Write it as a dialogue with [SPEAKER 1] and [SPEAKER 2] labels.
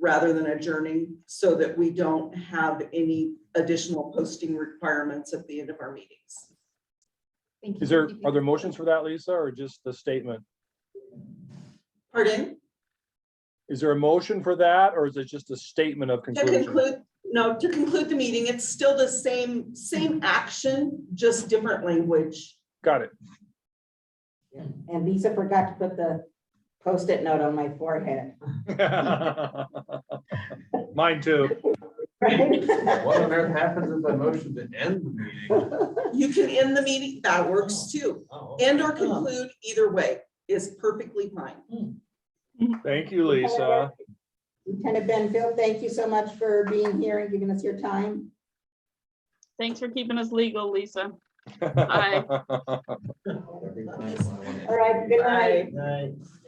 [SPEAKER 1] rather than adjourning so that we don't have any additional posting requirements at the end of our meetings.
[SPEAKER 2] Thank you.
[SPEAKER 3] Is there,
[SPEAKER 2] Thank you.
[SPEAKER 3] are there motions for that, Lisa, or just the statement?
[SPEAKER 1] Pardon?
[SPEAKER 3] Is there a motion for that, or is it just a statement of
[SPEAKER 1] To
[SPEAKER 3] conclusion?
[SPEAKER 1] conclude, no, to conclude the meeting, it's still the same, same action, just different language.
[SPEAKER 3] Got it.
[SPEAKER 4] And Lisa forgot to put the post-it note on my forehead.
[SPEAKER 3] Mine too.
[SPEAKER 5] What on earth happens if I motion to end the meeting?
[SPEAKER 1] You can end the meeting, that works too.
[SPEAKER 5] Oh,
[SPEAKER 1] End or conclude, either way, is perfectly fine.
[SPEAKER 3] Thank you, Lisa.
[SPEAKER 4] Lieutenant Benfield, thank you so much for being here and giving us your time.
[SPEAKER 6] Thanks for keeping us legal, Lisa. Aye.
[SPEAKER 5] every time I wanna-
[SPEAKER 4] All right, good night.
[SPEAKER 5] Night.